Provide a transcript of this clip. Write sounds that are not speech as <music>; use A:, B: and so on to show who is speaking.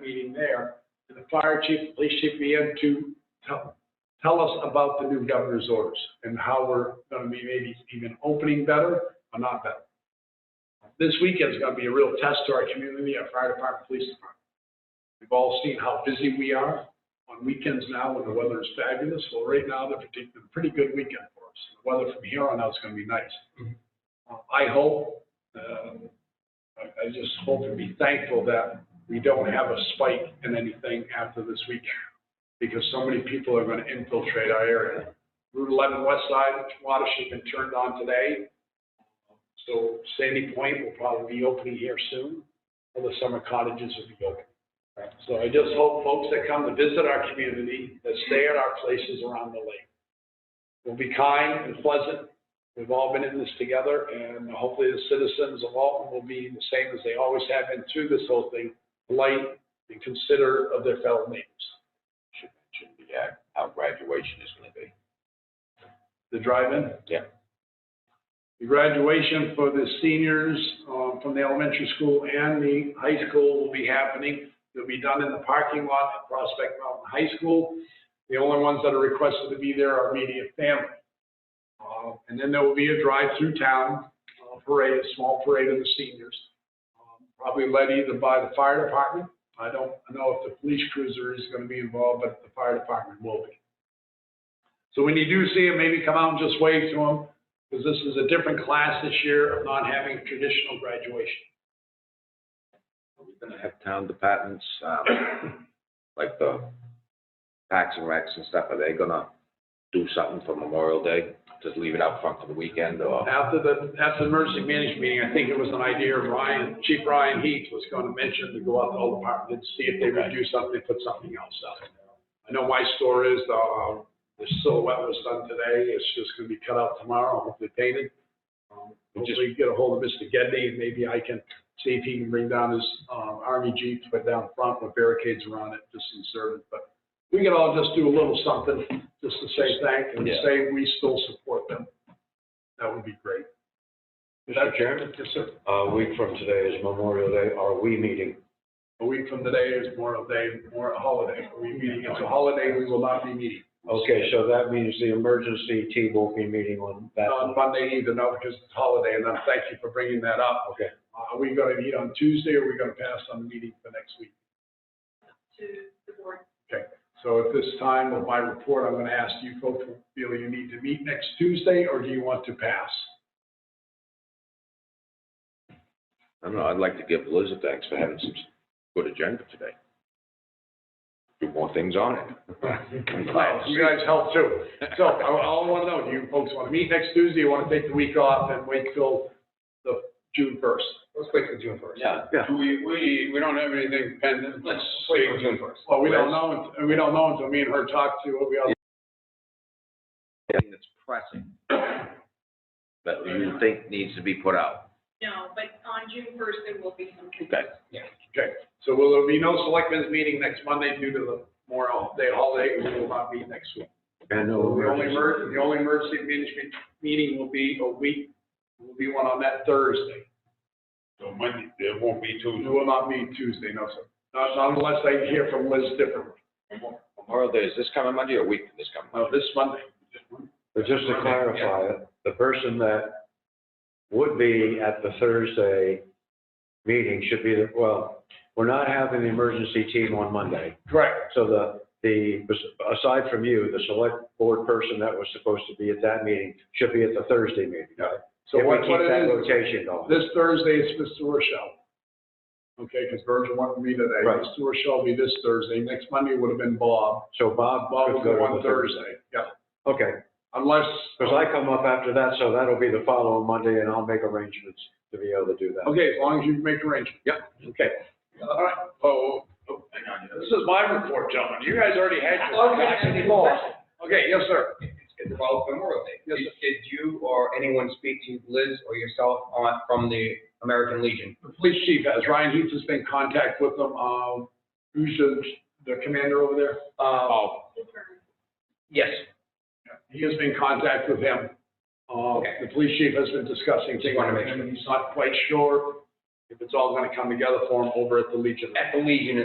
A: meeting there, and the fire chief, police chief, PM to tell, tell us about the new governor's orders and how we're gonna be maybe even opening better or not better. This weekend's gonna be a real test to our community, our fire department, police department. We've all seen how busy we are on weekends now when the weather is fabulous. Well, right now, they're predicting a pretty good weekend for us. The weather from here on out is gonna be nice. Uh, I hope, um, I I just hope and be thankful that we don't have a spike in anything after this weekend, because so many people are gonna infiltrate our area. Route 11 West Side water has been turned on today, so Sandy Point will probably be opening here soon, all the summer cottages will be open. So I just hope folks that come to visit our community, that stay at our places around the lake, will be kind and pleasant, We've all been in this together, and hopefully the citizens of Alton will be the same as they always have been through this whole thing, polite and considerate of their fellow neighbors.
B: should mention the, uh, how graduation is gonna be.
A: The drive-in?
B: Yeah.
A: The graduation for the seniors uh, from the elementary school and the high school will be happening. It'll be done in the parking lot at Prospect Mountain High School. The only ones that are requested to be there are immediate family. Uh, And then there will be a drive-through town uh, parade, a small parade of the seniors, um, probably led either by the fire department. I don't know if the police cruiser is going to be involved, but the fire department will be. So when you do see them, maybe come out and just wave to them, because this is a different class this year of not having traditional graduation.
B: We're gonna have town departments, um, like the packs and racks and stuff, are they gonna do something for Memorial Day? Just leave it out front for the weekend or?
A: After the, after the emergency management meeting, I think it was an idea of Ryan, Chief Ryan Heath was going to mention to go out to all departments, see if they would do something, put something else out. I know my store is, uh, the silhouette was done today, it's just gonna be cut out tomorrow, hopefully painted. Um,
B: We just-
A: Hopefully get a hold of Mr. Gedney, and maybe I can see if he can bring down his, um, army jeep, put down front with barricades around it, just in service, but we could all just do a little something, just to say thank and
B: Yeah.
A: say we still support them. That would be great.
C: Mr. Chairman,
A: Yes, sir.
C: a week from today is Memorial Day, are we meeting?
A: A week from today is Memorial Day, more a holiday. Are we meeting? It's a holiday, we will not be meeting.
C: Okay, so that means the emergency team won't be meeting on that.
A: On Monday either, no, because it's a holiday, and I'm thank you for bringing that up. Uh,
C: Okay.
A: Are we gonna meet on Tuesday, or are we gonna pass on the meeting for next week?
D: to the board.
A: So at this time of my report, I'm gonna ask you folks, feel you need to meet next Tuesday, or do you want to pass?
B: I don't know, I'd like to give Liz a thanks for having some good agenda today. Do more things on it. I'm glad to see
A: You guys help too. So I, I wanna know, do you folks wanna meet next Tuesday, you wanna take the week off and wait till the June first?
E: Let's wait till June first.
B: <laughs> Yeah.
E: We, we, we don't have anything pending, let's wait till June first.
A: Well, we don't know, and we don't know until me and her talk to, we all
B: Anything that's pressing that you think needs to be put out.
D: No, but on June first, there will be some.
B: Okay.
A: Okay, so will there be no selectmen's meeting next Monday due to the Memorial Day holiday? We will not be next week.
C: And
A: The
C: no
A: only
C: emergency.
A: emer, the only emergency management meeting will be a week, will be one on that Thursday.
E: So Monday, there won't be
A: It
E: Tuesday.
A: will not be Tuesday, no, sir. Not not unless I hear from Liz differently.
B: Memorial Day, is this coming Monday or week, this coming?
A: No, this Monday.
C: But just to clarify, it, the person that would be at the Thursday meeting should be, the well, we're not having the emergency team on Monday.
A: Correct.
C: So the, the, aside from you, the select board person that was supposed to be at that meeting should be at the Thursday meeting, right?
A: So
C: If we
A: what,
C: keep
A: what it
C: that
A: is,
C: rotation going.
A: this Thursday is Mr. Rochelle. Okay, because Virgil wanted me today.
C: Right.
A: Mr. Rochelle will be this Thursday. Next Monday would have been Bob.
C: So Bob
A: Bob will
C: could
A: be
C: go to the
A: on Thursday, yeah.
C: Okay,
A: Unless.
C: because I come up after that, so that'll be the following Monday, and I'll make arrangements to be able to do that.
A: Okay, as long as you make arrangements. Yep. Okay. All right. Oh, oh, hang on. This is my report, gentlemen. You guys already had your. Okay, yes, sir.
E: It's about Memorial Day.
A: Yes, sir.
E: Did you or anyone speak to Liz or yourself on, from the American Legion?
A: The police chief has, Ryan Heath has been in contact with them. Um, who's the, the commander over there?
E: Uh,
B: Oh,
E: yes,
A: He has been in contact with him. Uh,
E: Okay.
A: the police chief has been discussing things
E: Just wanna make
A: with him. He's not quite sure if it's all gonna come together for him over at the Legion.
E: at the Legion